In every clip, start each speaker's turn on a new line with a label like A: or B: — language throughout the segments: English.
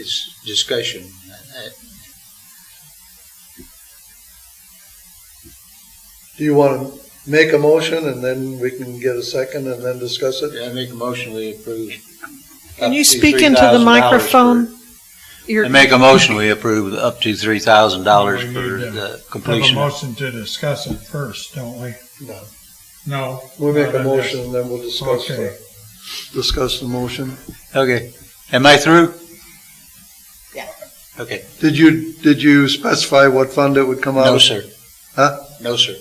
A: It's discussion.
B: Do you want to make a motion and then we can get a second and then discuss it?
A: Yeah, I make a motion we approve.
C: Can you speak into the microphone? You're-
A: I make a motion we approve up to three thousand dollars
D: We
A: for
D: need to
A: the
D: Have a
A: completion.
D: motion to discuss it first, don't we?
B: No.
D: No?
B: We make a
D: Not on this.
B: motion and then we'll discuss the,
D: Okay.
B: discuss the motion.
A: Okay, am I through?
C: Yeah.
A: Okay,
B: Did you, did you specify what fund it would come out of?
A: no, sir.
B: Huh?
A: No, sir.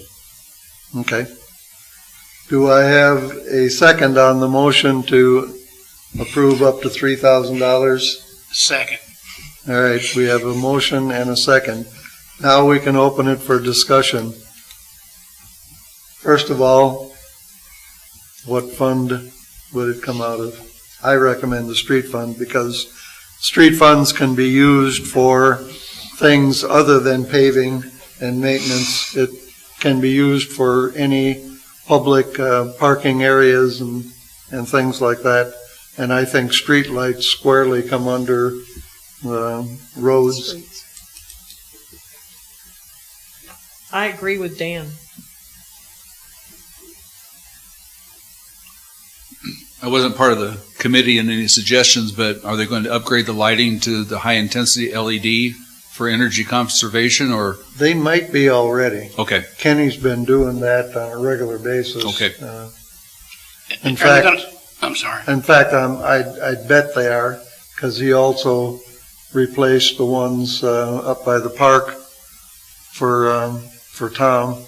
B: Okay. Do I have a second on the motion to approve up to three thousand dollars?
E: Second.
B: All right, we have a motion and a second. Now we can open it for discussion. First of all, what fund would it come out of? I recommend the street fund because street funds can be used for things other than paving and maintenance. It can be used for any public uh, parking areas and, and things like that. And I think streetlights squarely come under um, roads.
C: I agree with Dan.
F: I wasn't part of the committee and any suggestions, but are they going to upgrade the lighting to the high-intensity LED for energy conservation or,
B: They might be already.
F: okay,
B: Kenny's been doing that on a regular basis.
F: Okay.
B: Uh,
E: Are
B: In
E: they
B: fact,
E: gonna- I'm sorry.
B: in fact, um, I, I bet they are, because he also replaced the ones uh, up by the park for, um, for Tom.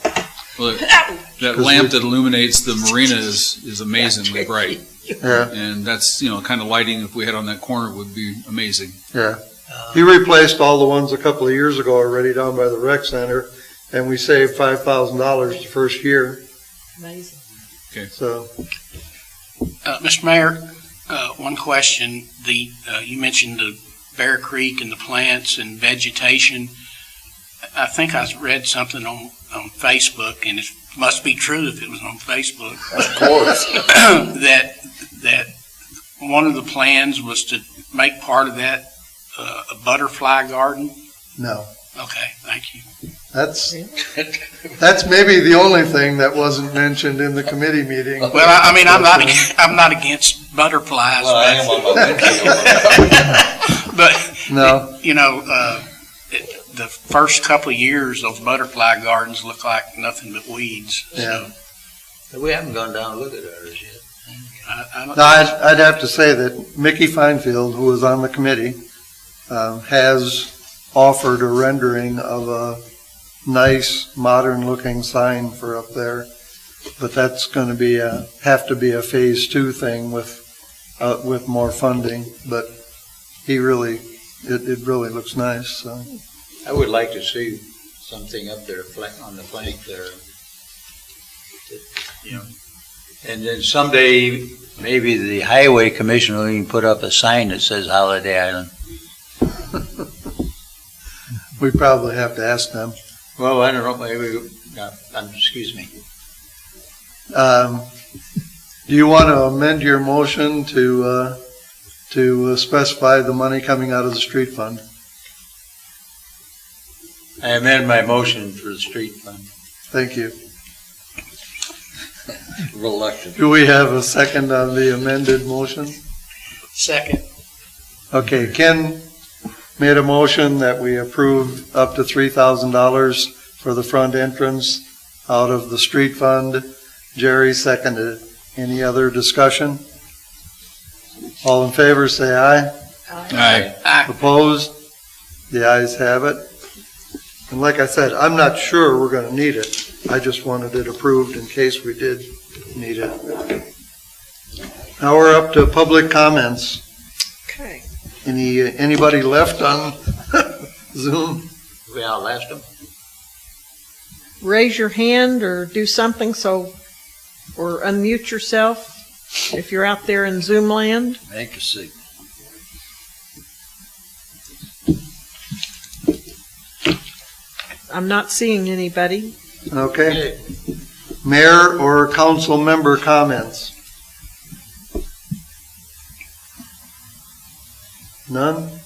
F: well, that- that lamp
B: we-
F: that illuminates the marina is, is amazingly bright.
B: Yeah,
F: And that's, you know, kind of lighting if we had on that corner would be amazing.
B: yeah. He replaced all the ones a couple of years ago already down by the rec center, and we saved five thousand dollars the first year,
C: Amazing.
B: so.
E: Uh, Mr. Mayor, uh, one question. The, uh, you mentioned the Bear Creek and the plants and vegetation. I think I read something on, on Facebook, and it must be true if it was on Facebook. Of course. That, that one of the plans was to make part of that uh, a butterfly garden.
B: No,
E: Okay, thank you.
B: that's, that's maybe the only thing that wasn't mentioned in the committee meeting.
E: Well, I I mean, I'm not, ag- I'm not against butterflies,
A: on my
E: but- but,
B: No.
E: you know, uh, it- the first couple of years, those butterfly gardens look like nothing but weeds.
B: Yeah.
E: So
A: We haven't gone down and looked at ours yet.
E: I, I don't.
B: No, I'd, I'd have to say that Mickey Feinfield, who was on the committee, um, has offered a rendering of a nice, modern-looking sign for up there. But that's gonna be a, have to be a phase two thing with, uh, with more funding. But he really, it, it really looks nice, so.
A: I would like to see something up there flank, on the flank there. You know, and then someday, maybe the highway commissioner will even put up a sign that says Holiday Island.
B: We probably have to ask them.
A: Well, I don't know, maybe, no, um, excuse me.
B: Um, Do you want to amend your motion to, uh, to uh, specify the money coming out of the street fund?
A: I amend my motion for the street fund.
B: Thank you.
A: Reluctant.
B: Do we have a second on the amended motion?
E: Second.
B: Okay, Ken made a motion that we approve up to three thousand dollars for the front entrance out of the street fund. Jerry seconded it. Any other discussion? All in favor, say aye.
F: Aye.
B: Opposed? The ayes have it. And like I said, I'm not sure we're gonna need it. I just wanted it approved in case we did need it. Now we're up to public comments.
C: Okay.
B: Any, anybody left on Zoom?
A: We outlast them?
C: Raise your hand or do something so, or unmute yourself if you're out there in Zoom land.
A: Make a sig.
C: I'm not seeing anybody.
B: Okay. Mayor or council member comments? None?